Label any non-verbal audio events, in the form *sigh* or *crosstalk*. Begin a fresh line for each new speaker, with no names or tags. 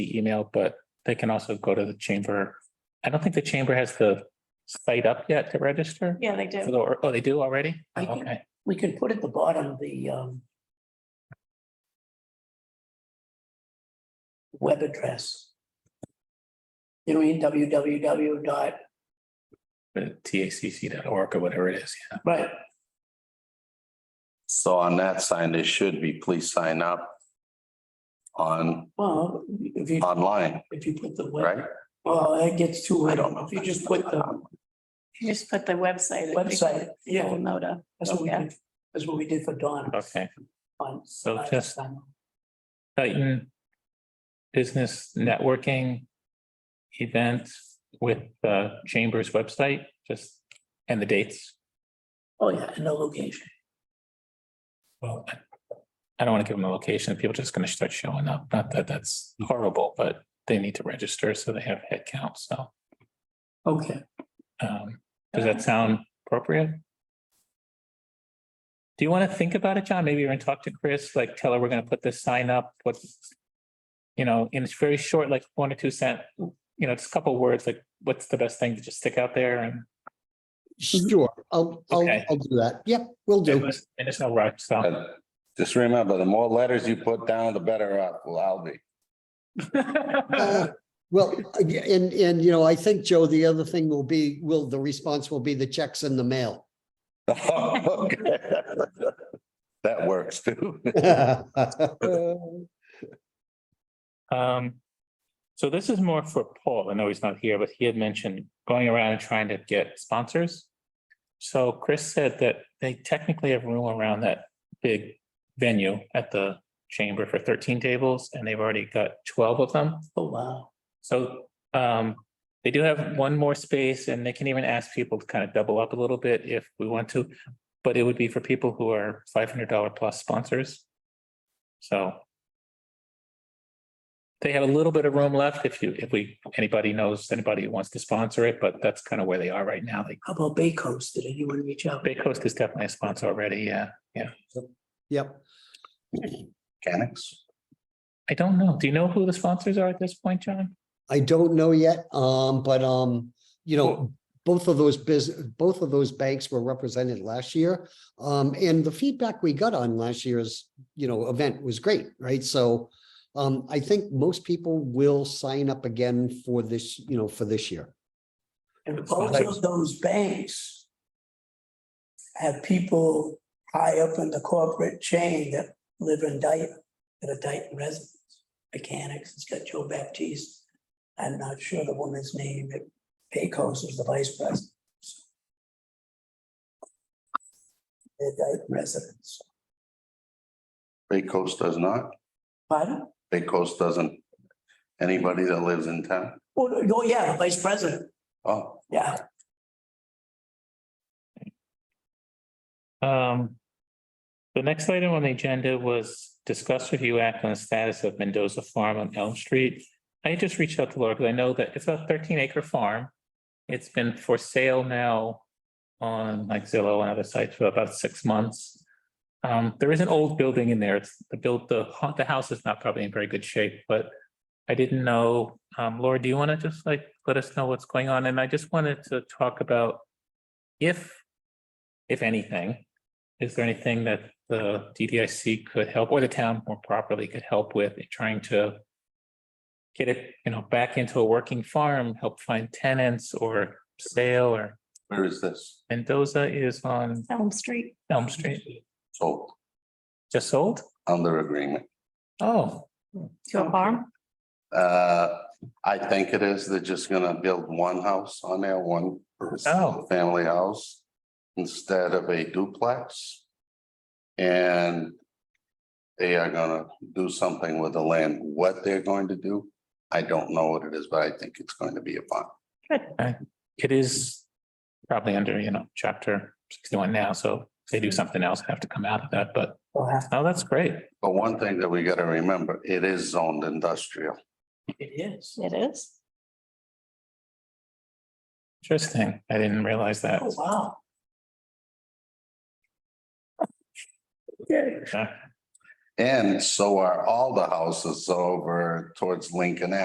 the email, but they can also go to the chamber. I don't think the chamber has the site up yet to register.
Yeah, they
For
do.
the- Oh, they do already?
I think-
Okay,
we can put at the bottom the um. Web address. You know, www dot,
tacc.org or whatever it is, yeah.
right,
So on that sign, they should be, please sign up on,
well, if you,
online,
if you put the web,
right?
well, that gets too, I don't know, if you just put the
You just put the website.
website, yeah,
Moda.
that's what we did, that's what we did for Dawn.
Okay,
on-
So just- Titan Business Networking event with the chamber's website, just, and the dates.
Oh, yeah, and the location,
Well, I- I don't want to give them a location. People just going to start showing up. Not that that's horrible, but they need to register, so they have head count, so.
okay,
Um, does that sound appropriate? Do you want to think about it, John? Maybe even talk to Chris, like tell her we're going to put this sign up, what? You know, and it's very short, like one or two cent, you know, it's a couple words, like what's the best thing to just stick out there and.
Sure, I'll, I'll,
Okay.
I'll do that. Yep, we'll do.
And it's no rush, so.
But Uh, Just remember, the more letters you put down, the better off will I'll be. *laughs*
Uh, Well, and, and, you know, I think, Joe, the other thing will be, will, the response will be the checks in the mail. *laughs*
Okay. That works too.
Um, so this is more for Paul. I know he's not here, but he had mentioned going around and trying to get sponsors. So Chris said that they technically have room around that big venue at the chamber for thirteen tables, and they've already got twelve of them.
oh, wow,
So um, they do have one more space and they can even ask people to kind of double up a little bit if we want to. But it would be for people who are five hundred dollar plus sponsors. So. They have a little bit of room left if you, if we, anybody knows, anybody who wants to sponsor it, but that's kind of where they are right now. Like
how about Bay Coast, did anyone reach out?
Bay Coast is definitely a sponsor already. Yeah, yeah.
Yep,
Mechanics.
I don't know. Do you know who the sponsors are at this point, John?
I don't know yet, um, but, um, you know, both of those business, both of those banks were represented last year. Um, and the feedback we got on last year's, you know, event was great, right? So um, I think most people will sign up again for this, you know, for this year.
And both of those banks have people high up in the corporate chain that live in Dayton, that are Dayton residents, mechanics, it's got Joe Baptiste. I'm not sure the woman's name, but Pecos is the vice president. They're Dayton residents.
Bay Coast does not.
Pardon?
Bay Coast doesn't. Anybody that lives in town.
Oh, no, no, yeah, the vice president,
Oh,
yeah.
Um, the next item on the agenda was discuss review act on the status of Mendoza Farm on Elm Street. I just reached out to Laura because I know that it's a thirteen acre farm. It's been for sale now on like Zillow and other sites for about six months. Um, there is an old building in there. It's the built, the, hu- the house is not probably in very good shape, but I didn't know. Um, Laura, do you want to just like let us know what's going on? And I just wanted to talk about if, if anything, is there anything that the DDIC could help, or the town more properly could help with in trying to get it, you know, back into a working farm, help find tenants or sale or
where is this?
Mendoza is on
Elm Street.
Elm Street,
So
just sold?
under agreement.
Oh,
To a farm?
Uh, I think it is. They're just gonna build one house on there, one
Oh.
family house instead of a duplex. And they are gonna do something with the land. What they're going to do, I don't know what it is, but I think it's going to be a farm.
it is probably under, you know, chapter sixty-one now, so if they
Hmm.
do something else, have to come out of that, but,
We'll have
oh, that's great.
But one thing that we gotta remember, it is zoned industrial.
It is.
It is.
Interesting. I didn't realize that.
Oh, wow. *laughs*
Yeah.
And so are all the houses over towards Lincoln Ave.